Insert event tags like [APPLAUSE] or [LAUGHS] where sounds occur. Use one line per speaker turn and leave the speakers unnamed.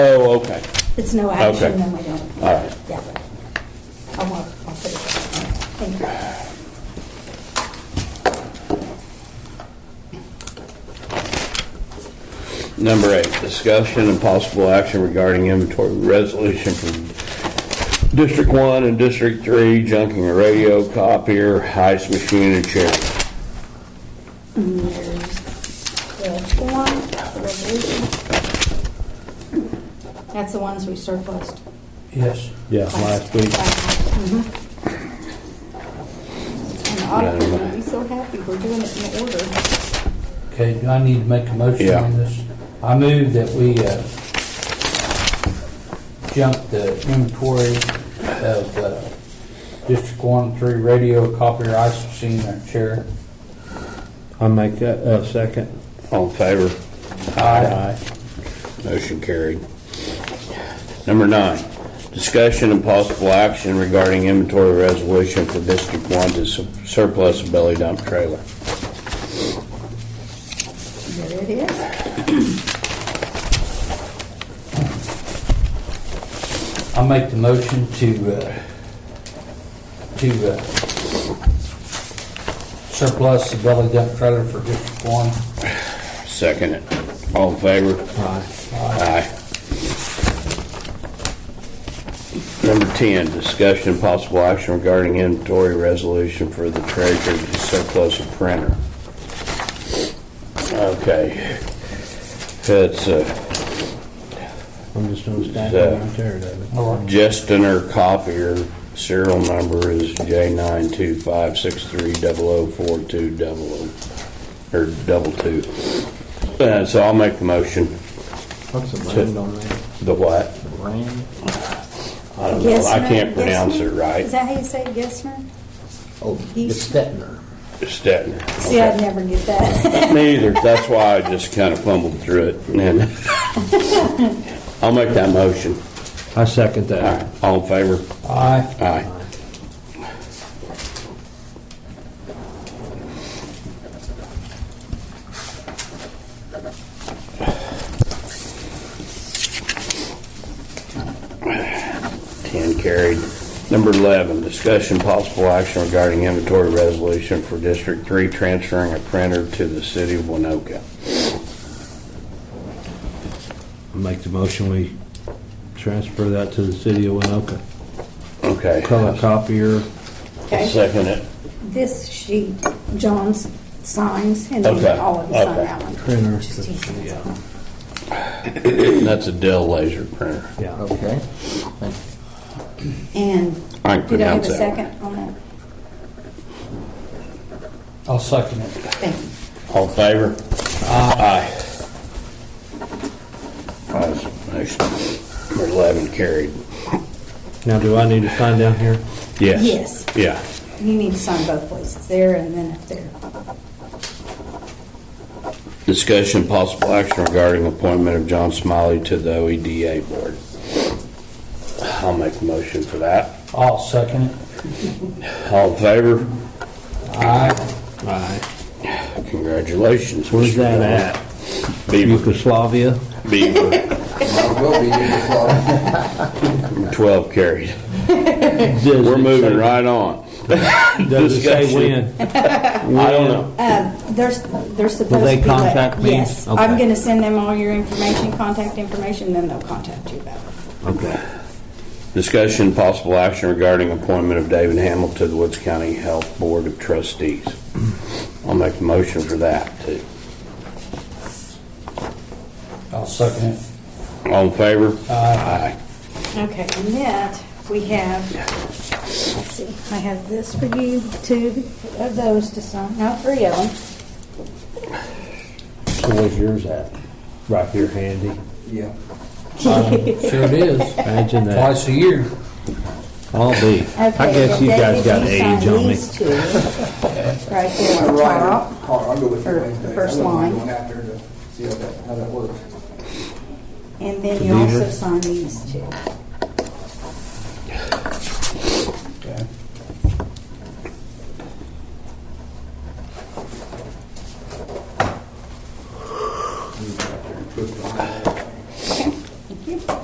Oh, okay.
It's no action,
Okay.
then we don't.
All right.
Yeah. I'll, mark- I'll put it there. Thank you.
Number eight, discussion and possible action regarding inventory resolution from District One and District Three, junking a radio, copier, ice machine, and chair.
And There's the form, the resolution. That's the ones we surplused.
Yes.
Yeah, last week.
Mhm. And the auditor
Yeah, I
would be so happy we're doing it in order.
Okay, do I need to make a motion
Yeah.
on this? I move that we uh, jump the inventory of uh, District 1 through radio copier, ice machine, and chair.
I'll make that a second.
All in favor?
Aye.
Motion carried. Number nine, discussion and possible action regarding inventory resolution for District One to su- surplus belly dump trailer.
There it is.
I make the motion to, uh, to uh, surplus the belly dump trailer for District 1.
Second it. All in favor? Aye. Number 10, discussion and possible action regarding inventory resolution for the treasurer to surplus a printer. Okay. That's uh,
I'm just gonna stand
Yeah.
right there, David.
Justiner copier, serial number is J92563004200, oh, or double two. Uh, So I'll make the motion.
What's the
land
on that?
The what?
Land?
I don't know. I
Gessner,
can't pronounce it
Gessner?
right.
Is that how you say it, Gessner?
Oh,
the
Stettner.
Stettner.
See, I'd never get that. [LAUGHS]
Me either. That's why I just kind of fumbled through it. [LAUGHS] And I'll make that motion.
I second
All
that.
right. All in favor?
Aye.
Aye. Ten carried. Number 11, discussion possible action regarding inventory resolution for District 3 transferring a printer to the city of Winoka.
I Make the motion, we transfer that to the city of Winoka.
Okay.
Color copier,
Okay.
Second it.
This sheet, John signs, and then
Okay,
all of us on
okay.
that one.
printer.
Just he signs
Yeah.
it.
That's a Dell laser printer.
Yeah.
Okay.
And
I can
did I have
pronounce
a
that. one.
second Oh, on that?
I'll second it.
Thank you.
All in favor? Aye. Ayes, motion. Number 11 carried.
Now, do I need to sign down here?
Yes.
Yes.
Yeah.
You need to sign both places, there and then up there.
Discussion possible action regarding appointment of John Smiley to the OEDA board. I'll make a motion for that.
I'll second it.
All in favor?
Aye.
Aye.
Congratulations.
Where's
Mr.
that
Miller.
at?
Beaver.
Yugoslavia?
Beaver.
I will be in Florida.
12 carried. We're moving right on.
Does it say
Discussion.
when?
I don't know.
Um, They're, they're supposed to be.
Will they
let-
contact me?
Yes. I'm
Okay.
going to send them all your information, contact information, then they'll contact you about it.
Okay.
Discussion, possible action regarding appointment of David Hamel to the Woods County Health Board of Trustees. I'll make a motion for that, too.
I'll second it.
All in favor? Aye.
Okay, and that, we have, let's see, I have this for you, two of those to sign, no, three of them.
So where's yours at? Right here handy.
Yeah.
Sure it is.
Imagine that.
Twice a year.
I'll be. I
Okay,
guess you
then
guys
David,
got
you
age
sign
on me.
these two, Right there
I'm
on
right.
top.
Hold on, I'll go with you
Or
Wednesday. I
first
wouldn't mind
line.
Going out there to see how that, how that works.
And then
The
you
beaver.
also sign these two.